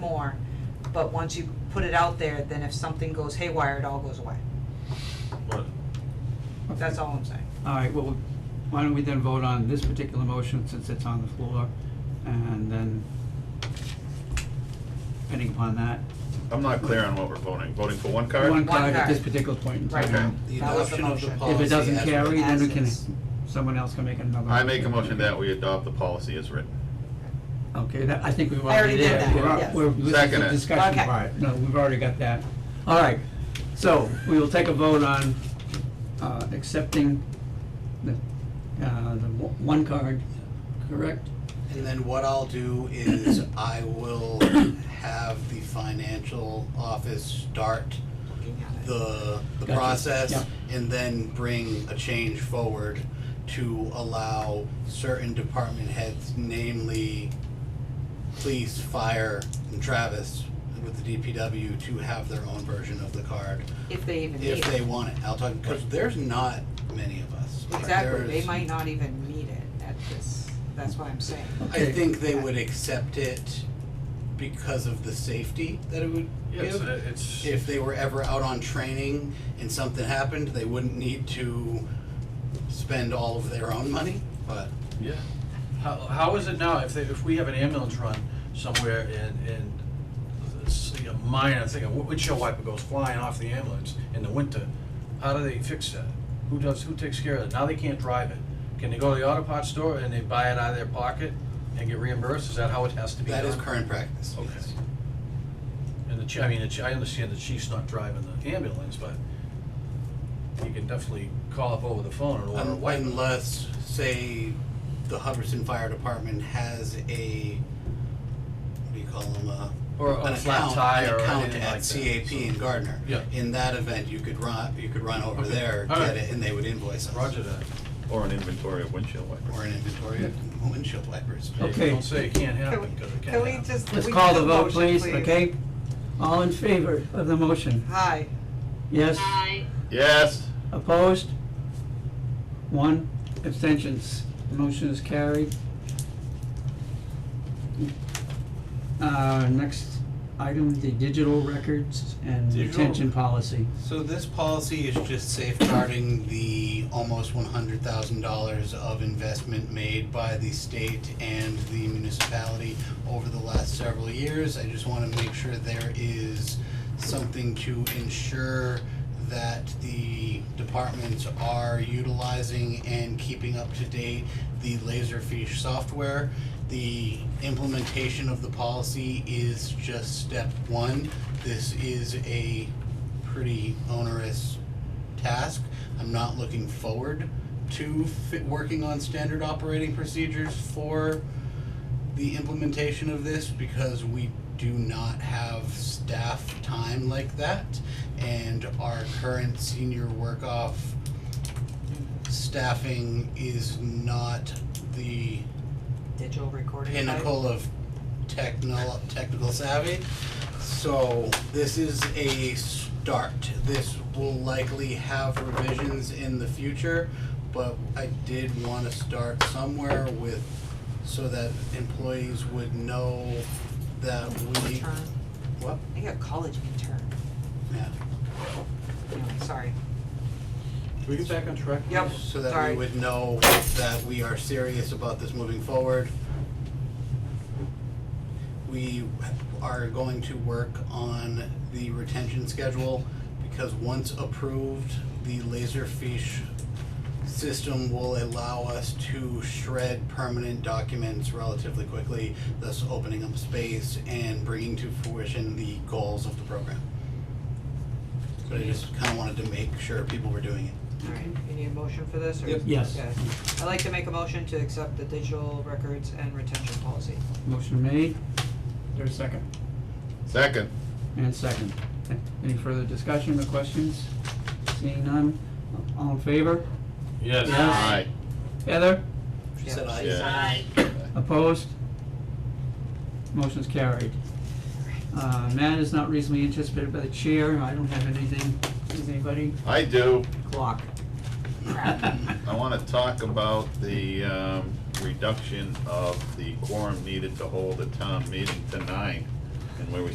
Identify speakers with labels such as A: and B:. A: but once you put it out there, then if something goes haywire, it all goes away.
B: But
A: That's all I'm saying.
C: All right, well, why don't we then vote on this particular motion since it's on the floor? And then, depending upon that,
B: I'm not clear on what we're voting. Voting for one card?
C: one card at this
A: card.
C: particular point in
A: Right.
C: time.
D: The
A: That was the
D: adoption of the
A: motion.
D: policy.
C: If it doesn't
D: as
C: carry,
D: written.
C: then we can,
A: As is.
C: someone else can make another.
B: I make a motion that we adopt the policy as written.
C: Okay, that, I think we've
A: I already
C: already
A: did
C: there.
A: that,
C: We're al-
A: yes.
C: We're, this is
B: Second
C: the
B: it.
C: discussion
A: Okay.
C: part. No, we've already got that. All right, so we will take a vote on, uh, accepting the, uh, the w- one card, correct?
D: And then what I'll do is I will have the financial office start
A: Looking at it.
D: the, the
C: Gotcha.
D: process
C: Yeah.
D: and then bring a change forward to allow certain department heads, namely police, fire, and Travis with the DPW to have their own version of the card
A: If they even need
D: if they
A: it.
D: want it. I'll talk, because there's not many of us.
A: Exactly, they
D: There's-
A: might not even need it at this, that's what I'm saying.
D: I
C: Okay.
D: think they would accept it because of the safety that it would
B: Yes,
D: give.
B: it's.
D: If they were ever out on training and something happened, they wouldn't need to spend all of their own money, but
E: Yeah. How, how is it now, if they, if we have an ambulance run somewhere and, and it's a minor thing, a windshield wiper goes flying off the ambulance in the winter, how do they fix that? Who does, who takes care of it? Now they can't drive it. Can they go to the auto parts store and they buy it out of their pocket and get reimbursed? Is that how it has to be
D: that is
E: done?
D: current practice.
E: Okay.
D: yes.
E: And the, chi- I mean, the chi- I understand the chief's not driving the ambulance, but you can definitely call up over the phone and order a
D: Un-
E: wiper.
D: Unless, say, the Hubbardston Fire Department has a, what do you call them, uh,
E: Or a
D: an
E: flat
D: account-
E: tire
D: an
E: or
D: account
E: anything like that,
D: at CAP in Gardner.
E: Yeah.
D: In that event, you could run, you could run over
E: Okay.
D: there,
E: All
D: get
E: right.
D: it, and they would invoice us.
E: Roger that.
B: Or an inventory of windshield wipers.
D: Or an inventory of windshield wipers.
E: Hey,
C: Okay.
E: Don't say it can't happen, because it can happen.
C: Let's call the vote, please, okay? All in favor of the motion?
A: Hi,
C: Yes?
F: Aye.
B: Yes,
C: Opposed? One, abstentions. The Motion is carried. Uh, next item, the digital records and
D: Digital.
C: retention policy.
D: So this policy is just safeguarding the almost one hundred thousand dollars of investment made by the state and the municipality over the last several years. I just wanna make sure there is something to ensure that the departments are utilizing and keeping up to date the Laserfish software. The implementation of the policy is just step one. This is a pretty onerous task. I'm not looking forward to fit, working on standard operating procedures for the implementation of this because we do not have staff time like that. And our current senior work off staffing is not the
A: digital recording. right?
D: pinnacle of technol- technical savvy. So this is a start. This will likely have revisions in the future, but I did want to start somewhere with, so that employees would know that we,
A: Intern,
D: what?
A: I think a college intern,
D: Yeah.
A: Anyway, sorry.
E: Can we get back on track?
A: Yep.
E: please?
D: So that
A: Sorry.
D: we would know that we are serious about this moving forward. We are going to work on the retention schedule because once approved, the Laserfish system will allow us to shred permanent documents relatively quickly, thus opening up space and bringing to fruition the goals of the program. But I just kinda wanted to make sure people were doing it.
A: Alright, you need a motion for this or?
D: Yep.
C: Yes.
A: Okay. I'd like to make a motion to accept the digital records and retention policy.
C: Motion made. There's a second.
B: second.
C: And second. Any further discussion or questions? Seeing none? All in favor?
B: Yes.
C: Yes.
B: Aye.
C: Heather?
D: She said aye.
B: Yeah.
F: Aye.
C: Opposed? Motion's carried. Uh, Matt is not reasonably anticipated by the chair. I don't have anything. Does anybody?
B: I do.
C: Clock.
B: I wanna talk about the, um, reduction of the quorum needed to hold a town meeting to nine and where we